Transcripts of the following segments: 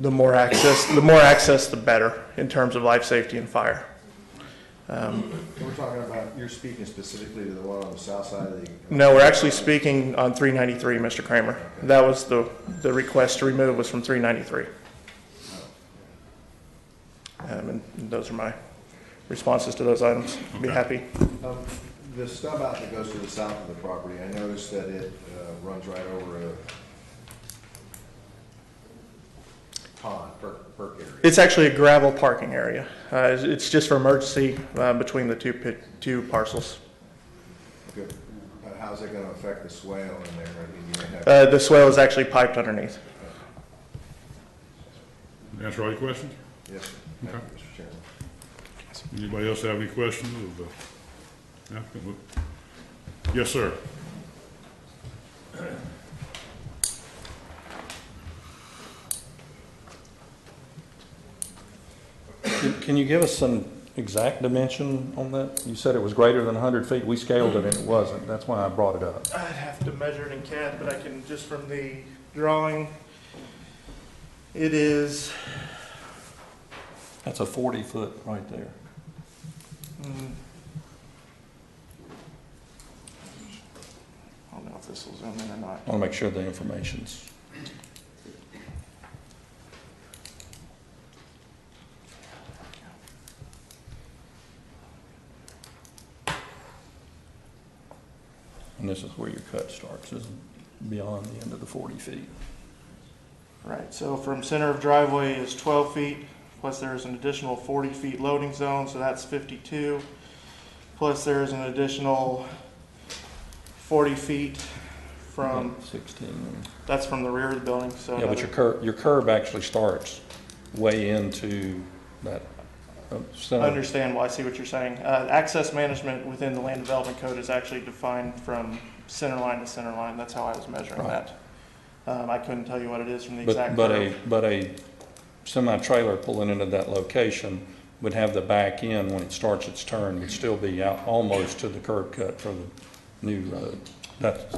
The more access, the more access, the better in terms of life safety and fire. We're talking about, you're speaking specifically to the one on the south side of the. No, we're actually speaking on 393, Mr. Kramer. That was the, the request to remove was from 393. Um, And those are my responses to those items. Be happy. Um, The stub out that goes to the south of the property, I noticed that it uh, runs right over a pond, perk, perk area. It's actually a gravel parking area. Uh, It's it's just for emergency uh, between the two, pit- two parcels. Good. Uh, How's it gonna affect the swale in there? I mean, you may have, Uh, The swale is actually piped underneath. Answer all your questions? yes, sir. thank you, Mr. Chairman. Anybody else have any questions of the applicant? Yes, sir. Can- Can you give us some exact dimension on that? You said it was greater than 100 feet. We scaled it and it wasn't. That's why I brought it up. I'd have to measure it in CAD, but I can, just from the drawing, it is, That's a 40-foot right there. mm, I don't know if this will zoom in or not. I want to make sure the information's, and this is where your cut starts, is beyond the end of the 40 feet. Right, so from center of driveway is twelve feet, plus there's an additional forty feet loading zone, so that's fifty-two. Plus there's an additional forty feet from, 16. that's from the rear of the building, so. Yeah, but your another- curb, your curb actually starts way into that uh, I center. understand, well, I see what you're saying. Uh, access management within the land development code is actually defined from center line to center line, that's how I was measuring Right. that. Um, I couldn't tell you what it is from the But, exact. but curve. a, but a semi-trailer pulling into that location would have the back end, when it starts its turn, would still be out almost to the curb cut for the new road. That,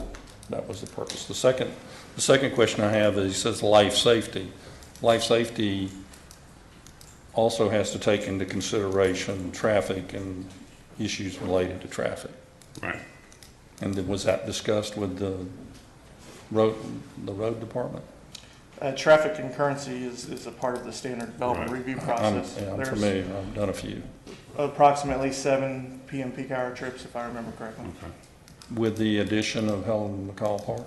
that was the purpose. The second, the second question I have is, it says life safety. Life safety also has to take into consideration traffic and issues related to traffic. Right. And then was that discussed with the road, the road department? Uh, traffic concurrency is, is a part of the standard development Right. review I'm- process. yeah, I'm There's familiar, I've done a few. approximately seven PM peak hour trips, if I remember correctly. Okay. With the addition of Helen McCall Park?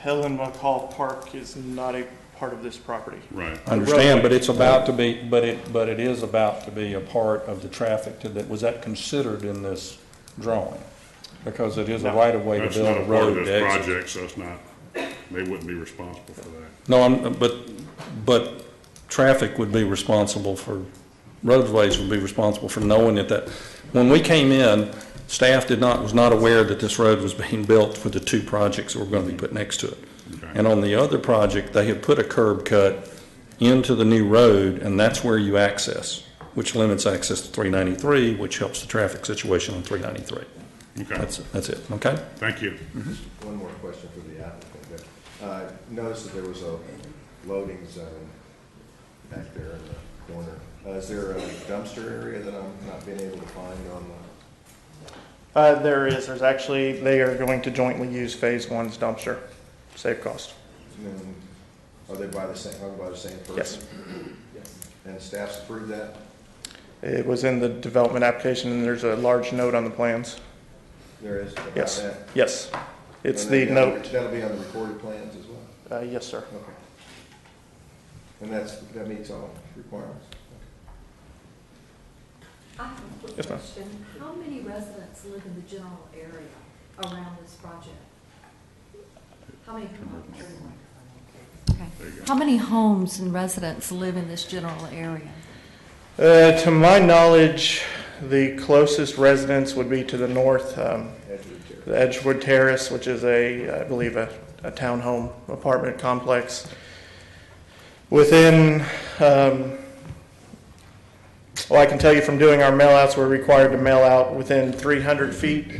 Helen McCall Park is not a part of this property. Right. I understand, but it's about to be, but it, but it is about to be a part of the traffic to that, was that considered in this drawing? Because it is a No. right-of-way to That's build not a a part road of this to exit. project, so it's not, they wouldn't be responsible for that. No, I'm, but, but traffic would be responsible for, roadways would be responsible for knowing that that, when we came in, staff did not, was not aware that this road was being built for the two projects that were gonna be put next to it. Okay. And on the other project, they had put a curb cut into the new road, and that's where you access, which limits access to three ninety-three, which helps the traffic situation on three ninety-three. Okay, That's, that's it, okay? thank you. One more question for the applicant. but, uh, Notice that there was a loading zone back there in the corner. Uh, Is there a dumpster area that I'm not being able to find on the? Uh, there is, there's actually, they are going to jointly use phase one's dumpster, save cost. and Are they by the same, owned by the same person? Yes. And staff's approved that? It was in the development application, and there's a large note on the plans. There is about Yes, that? yes. It's And the that'll be- note, That'll be on the recorded plans as well? uh, yes, sir. Okay. And that's, that meets all requirements? I have a quick Yes, ma'am. question. How many residents live in the general area around this project? How many homes? Okay. There you go. How many homes and residents live in this general area? Uh, to my knowledge, the closest residence would be to the north, um, Edgewood Terrace. the Edgewood Terrace, which is a, I believe, a, a townhome apartment complex. Within, um, well, I can tell you from doing our mailouts, we're required to mail out within three hundred feet